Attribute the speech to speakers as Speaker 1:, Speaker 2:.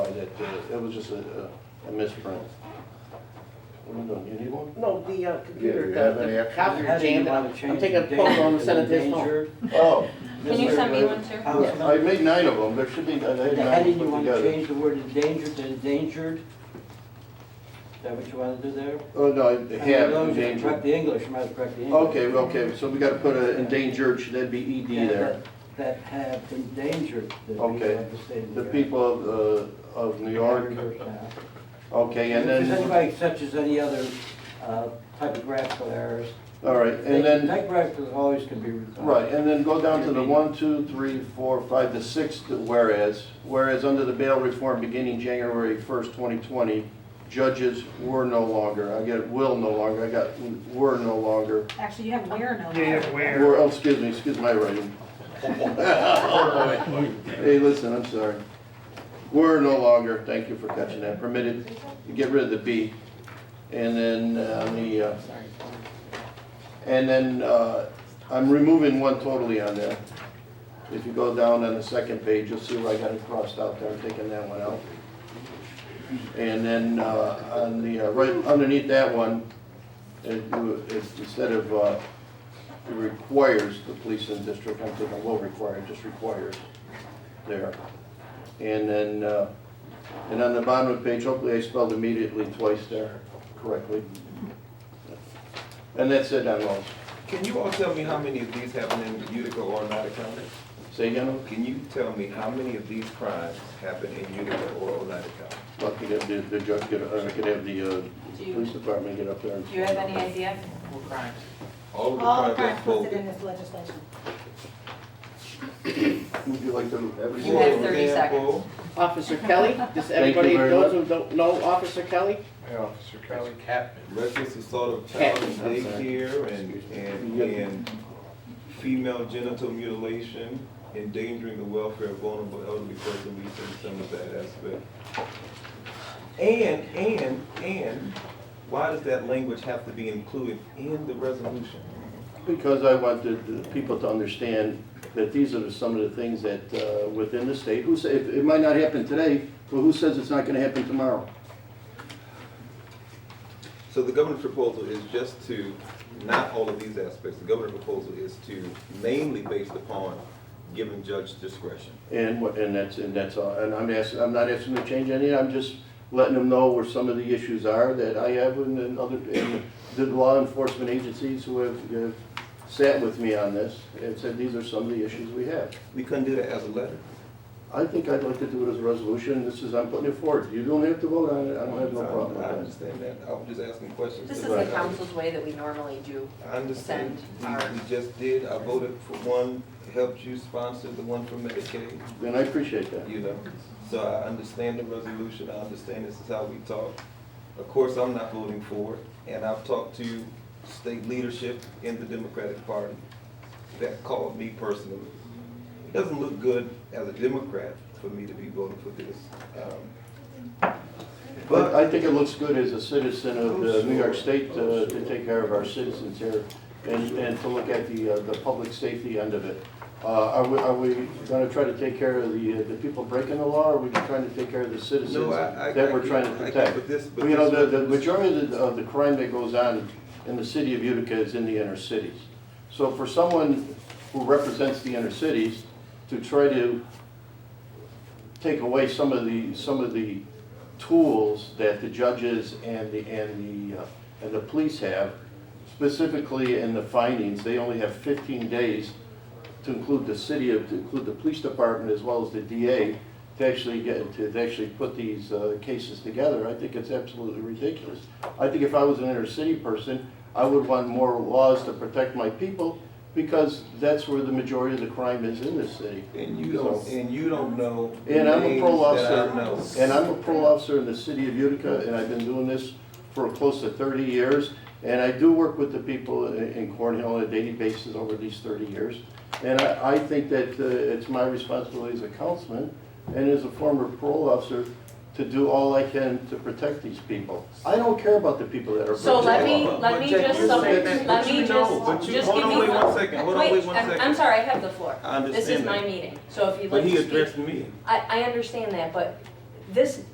Speaker 1: uh, it was just a, a- a misprint. What am I doing, you need one?
Speaker 2: No, the uh,
Speaker 3: Yeah,
Speaker 2: computer,
Speaker 3: you have any
Speaker 2: the- the
Speaker 3: extra?
Speaker 2: copier jammed,
Speaker 4: wanna
Speaker 2: I'm
Speaker 4: change
Speaker 2: taking a
Speaker 4: the
Speaker 2: photo
Speaker 4: date
Speaker 2: and
Speaker 4: to
Speaker 2: send it to his phone.
Speaker 4: endangered
Speaker 1: Oh,
Speaker 5: Can you send me one too?
Speaker 4: house
Speaker 2: Yeah.
Speaker 1: I
Speaker 4: number?
Speaker 1: made nine of them, there should be, I had
Speaker 4: The
Speaker 1: nine
Speaker 4: heading, you
Speaker 1: put
Speaker 4: wanna
Speaker 1: together.
Speaker 4: change the word endangered to endangered? Is that what you wanna do there?
Speaker 1: Oh, no, I have
Speaker 4: Those, you Correct
Speaker 1: endangered.
Speaker 4: the English, you might have correct the English.
Speaker 1: Okay, well, okay, so we gotta put a endangered, should that be ED
Speaker 4: Yeah,
Speaker 1: there?
Speaker 4: that- That have endangered the people
Speaker 1: Okay.
Speaker 4: of the state of
Speaker 1: The
Speaker 4: New York.
Speaker 1: people of, uh, of New York,
Speaker 4: Yeah.
Speaker 1: okay,
Speaker 4: If
Speaker 1: and
Speaker 4: there's
Speaker 1: then,
Speaker 4: anybody such as any other uh, typographical errors,
Speaker 1: all right, and then.
Speaker 4: typographical always can be recalled.
Speaker 1: Right, and then go down to the one, two, three, four, five, the sixth whereas. Whereas under the bail reform beginning January first, twenty twenty, judges were no longer, I get will no longer, I got were no longer.
Speaker 5: Actually, you have where no.
Speaker 6: Yeah, where?
Speaker 1: Were, oh, excuse me, excuse my writing. Hey, listen, I'm sorry. Were no longer, thank you for catching that, permitted, you get rid of the B. And then, uh, on the, uh,
Speaker 2: Sorry.
Speaker 1: and then, uh, I'm removing one totally on there. If you go down on the second page, you'll see where I got it crossed out there, I'm taking that one out. And then, uh, on the, uh, right underneath that one, it, it, instead of, uh, requires the police in the district, I'm thinking will require, just requires there. And then, uh, and on the bottom of the page, hopefully I spelled immediately twice there correctly. And that's it on those.
Speaker 7: Can you all tell me how many of these happen in Utica or not County?
Speaker 1: Say again,
Speaker 7: Can you tell me how many of these crimes happen in Utica or Oneida County?
Speaker 1: Well, I could have the, the judge get, uh, I could have the, uh,
Speaker 5: Do you-
Speaker 1: police department get up there and.
Speaker 5: Do you have any idea?
Speaker 2: What crimes?
Speaker 7: All of the
Speaker 8: All the
Speaker 7: crimes
Speaker 8: crimes
Speaker 7: that's
Speaker 8: listed
Speaker 7: voted.
Speaker 8: in this legislation.
Speaker 1: Would you like to?
Speaker 5: You have 30 seconds.
Speaker 2: Officer Kelly, does
Speaker 1: Thank you
Speaker 2: everybody,
Speaker 1: very
Speaker 2: those who don't know Officer Kelly?
Speaker 6: Hey, Officer Kelly. Captain.
Speaker 7: Reckless assault of child in
Speaker 1: Okay, I'm sorry.
Speaker 7: daycare and, and, and female genital mutilation, endangering the welfare of vulnerable elderly person, we see some of that aspect. And, and, and, why does that language have to be included in the resolution?
Speaker 1: Because I wanted the people to understand that these are some of the things that, uh, within the state, who say, it might not happen today, but who says it's not gonna happen tomorrow?
Speaker 7: So the governor's proposal is just to, not all of these aspects, the governor's proposal is to mainly based upon giving judge discretion.
Speaker 1: And what, and that's, and that's all, and I'm asking, I'm not asking to change any, I'm just letting them know where some of the issues are that I have and then other, and the law enforcement agencies who have, have sat with me on this and said, these are some of the issues we have.
Speaker 7: We couldn't do that as a letter.
Speaker 1: I think I'd like to do it as a resolution, this is, I'm putting it forward, you don't have to vote on it, I don't have no problem
Speaker 7: I
Speaker 1: with
Speaker 7: understand that, I was just asking questions.
Speaker 5: This is the council's way that we normally do.
Speaker 7: I understand, we,
Speaker 5: Send our-
Speaker 7: we just did, I voted for one, helped you sponsor the one for Medicaid,
Speaker 1: that, and I appreciate that.
Speaker 7: you know? So I understand the resolution, I understand this is how we talk. Of course, I'm not voting for it, and I've talked to state leadership in the Democratic Party that called me personally. It doesn't look good as a Democrat for me to be voting for this. um,
Speaker 1: But
Speaker 7: But
Speaker 1: I think it looks good as a citizen of uh, New York State uh, to take care of our citizens here and, and to look at the, uh, the public safety end of it. Uh, Are we, are we gonna try to take care of the, uh, the people breaking the law, or are we trying to take care of the citizens
Speaker 7: No, I- I-
Speaker 1: that
Speaker 7: I
Speaker 1: we're
Speaker 7: get-
Speaker 1: trying to
Speaker 7: I get-
Speaker 1: protect?
Speaker 7: but this- but
Speaker 1: You know, the,
Speaker 7: this-
Speaker 1: the majority of the, of the crime that goes on in the city of Utica is in the inner cities. So for someone who represents the inner cities to try to take away some of the, some of the tools that the judges and the, and the, uh, and the police have, specifically in the findings, they only have fifteen days to include the city, of to include the police department as well as the DA, to actually get, to actually put these uh, cases together, I think it's absolutely ridiculous. I think if I was an inner city person, I would want more laws to protect my people, because that's where the majority of the crime is in this city.
Speaker 7: And you don't, and you don't know.
Speaker 1: And I'm a
Speaker 7: names
Speaker 1: parole
Speaker 7: that I
Speaker 1: officer,
Speaker 7: know.
Speaker 1: and I'm a parole officer in the city of Utica, and I've been doing this for close to thirty years. And I do work with the people i- in Cornhill on a daily basis over these thirty years. And I, I think that uh, it's my responsibility as a councilman and as a former parole officer to do all I can to protect these people. I don't care about the people that are.
Speaker 5: So let
Speaker 1: breaking
Speaker 5: me,
Speaker 1: the law.
Speaker 5: let me
Speaker 7: But
Speaker 5: just,
Speaker 7: you
Speaker 5: sum-
Speaker 7: said
Speaker 5: let
Speaker 7: that- but
Speaker 5: me
Speaker 7: you know, but
Speaker 5: just,
Speaker 7: you-
Speaker 5: just
Speaker 7: hold
Speaker 5: give
Speaker 7: on,
Speaker 5: me
Speaker 7: wait
Speaker 5: one.
Speaker 7: one second, hold on, wait one
Speaker 5: Wait, I'm- I'm
Speaker 7: second.
Speaker 5: sorry, I have the floor.
Speaker 7: I
Speaker 5: This is
Speaker 7: understand
Speaker 5: my
Speaker 7: that.
Speaker 5: meeting, so if you'd
Speaker 7: But
Speaker 5: like
Speaker 7: he
Speaker 5: to speak.
Speaker 7: addressed me.
Speaker 5: I, I understand that, but this